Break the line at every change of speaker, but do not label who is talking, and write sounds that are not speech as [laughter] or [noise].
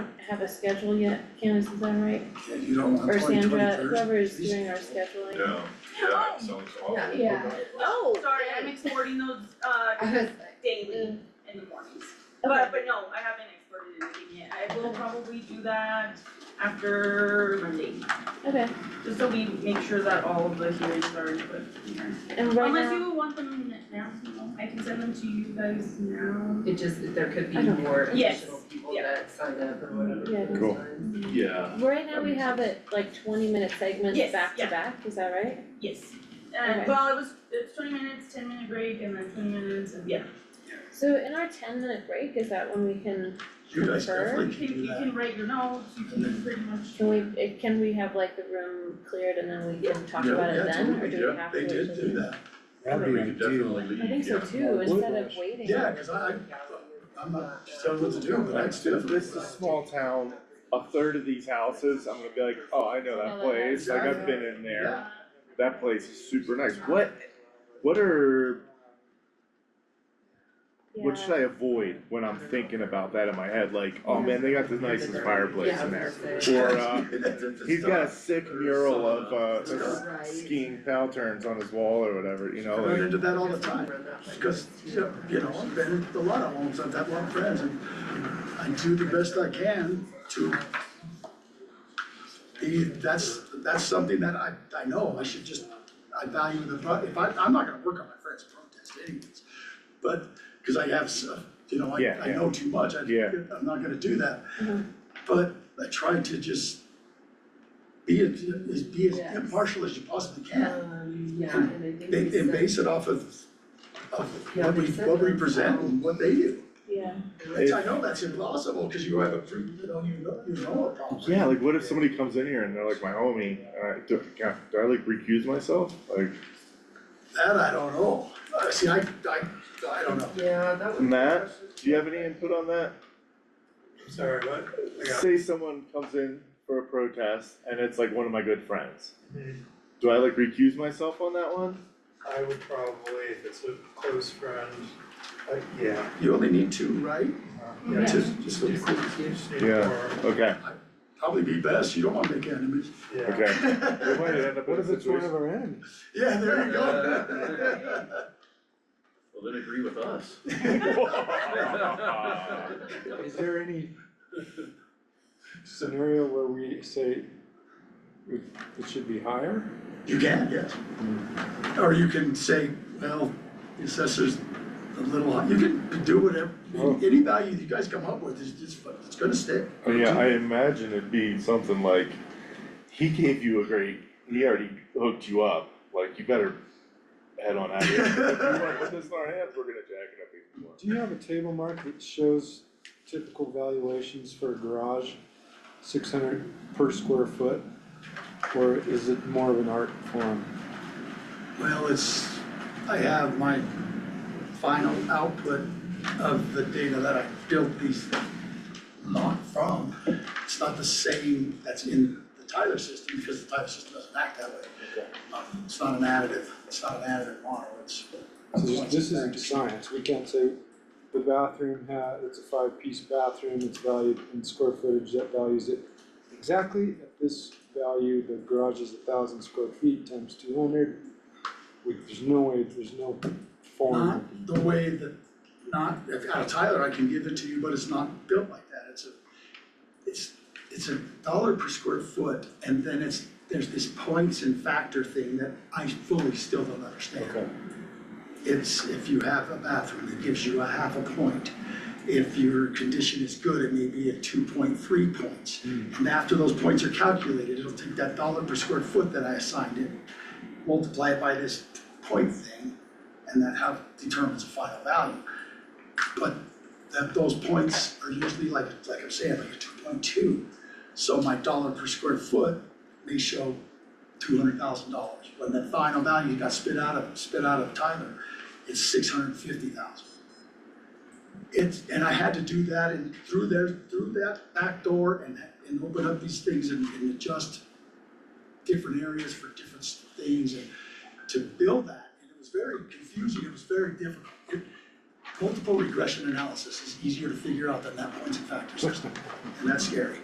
have a schedule yet, Candace, is that right?
Yeah, you don't want
Or
twenty
Sandra,
twenty-third.
whoever is doing our scheduling.
Yeah, yeah, it sounds awful.
Yeah.
Yeah.
Oh,
Sorry,
yeah.
I'm exporting those uh
I was
daily
Mm.
in the mornings.
Okay.
But but no, I haven't exported anything yet. I will probably do that after Monday,
Okay,
just so we make sure that all of the hearings are input here.
and right
Unless
now,
you want them now, I can send them to you guys now.
It just, there could be
I don't-
more
Yes,
additional people
yeah.
that sign up or whatever.
Yeah.
for those
Cool.
times.
Yeah,
right now we have it like twenty minute segments
Yes,
back to
yeah.
back, is that right?
Yes. And
Okay.
well, it was it's twenty minutes, ten minute break and then twenty minutes and yeah.
So in our ten minute break, is that when we can,
You guys
Sure.
definitely
You
can
can
do
you
that.
can write your notes, you can pretty much.
can we, eh, can we have like the room cleared and then we can talk
Yeah,
about it
yeah,
then, or
totally,
do we
yeah,
have to
They
wait till-
did do that.
we
That'd be
could
ideal.
definitely
I think
leave,
so
yeah.
too,
Well,
instead of
Whiplash.
waiting.
Yeah, cause I, I'm not telling what to do, but I'd still.
This is small town, a third of these houses, I'm gonna be like, oh, I know that place, like I've been in there.
Yeah.
That place is super nice. What, what are, what should I avoid when I'm thinking about that in my head? Like, oh man, they got the nicest fireplace in there. Or,
[laughs]
uh, He's got a sick mural of, uh,
Right.
skiing patterns on his wall or whatever, you know,
I run
like,
into that all the time, because, you know, you know,
Um,
I've been at a lot of homes, I've had a lot of friends, and I do the best I can to be, that's, that's something that I, I know, I should just, I value the, pro- if I, I'm not gonna work on my friend's protest anyways. But, cause I have, s- you know, I,
Yeah,
I
yeah.
know too much, I,
Yeah.
I'm not gonna do that.
Mhm.
But I try to just be as, as- be as
Yes.
impartial as you possibly can.
Um, yeah, and I think uh,
They,
we
they
said-
base it off of, of
Yeah,
what we,
they said
what we
that.
present and what they do.
Yeah,
That's, I know that's impossible, cause you have a, pre- you know, you know, you know a problem.
yeah, like what if somebody comes in here and they're like my homie, and I, do, God, do I like recuse myself? Like,
That I don't know, Uh, see, I, I, I don't know.
Yeah, that was.
Matt, do you have any input on that?
Sorry, what? Yeah.
Say someone comes in for a protest and it's like one of my good friends.
Mhm.
Do I like recuse myself on that one?
I would probably, if it's a close friend, uh, yeah.
You only need two, right?
uh,
Yeah.
Just, just
Just- just need
Yeah.
more,
Okay,
probably be best, you don't wanna make enemies. [laughs]
Yeah.
okay. We might end up in
What
a
if it's one
situation.
of our enemies?
[laughs]
Yeah, there you go.
Uh, Well, then agree with us.
Is there any scenario where we say it it should be higher?
You can, yes. Or you can say, well, the assessor's a little, high." you can do whatever,
Oh.
any value you guys come up with is just, it's gonna stick.
Yeah, I imagine it'd be something like, he gave you a great, he already hooked you up, like you better head on out of [laughs] here. If you want, with this in our hands, we're gonna jack it up even more.
Do you have a table mark that shows typical valuations for a garage, six hundred per square foot? Or is it more of an art form?
Well, it's, I have my final output of the data that I built these, not from. It's not the same that's in the Tyler system, because the Tyler system doesn't act that way. Uh, It's not an additive, it's not an additive model, it's.
So this this isn't science, we can't say the bathroom ha it's a five-piece bathroom, it's valued in square footage, that values it exactly at this value, the garage is a thousand square feet times two hundred. We, there's no way, there's no form,
Not the way that, not, if out of Tyler, I can give it to you, but it's not built like that, it's a, it's, it's a dollar per square foot, and then it's, there's this points and factor thing that I fully still don't understand.
okay,
It's if you have a bathroom, it gives you a half a point. If your condition is good, it may be at two point three points. And after those points are calculated, it'll take that dollar per square foot that I assigned it, multiply it by this point thing, and that how determines the final value. But that those points are usually like, like I'm saying, like a two point two. So my dollar per square foot may show two hundred thousand dollars. When the final value got spit out of, spit out of Tyler, it's six hundred and fifty thousand. It's, and I had to do that and through there, through that back door and, and open up these things and, and adjust different areas for different s- things and to build that. And it was very confusing, it was very difficult. It- Multiple regression analysis is easier to figure out than that points and factor system, and that's scary.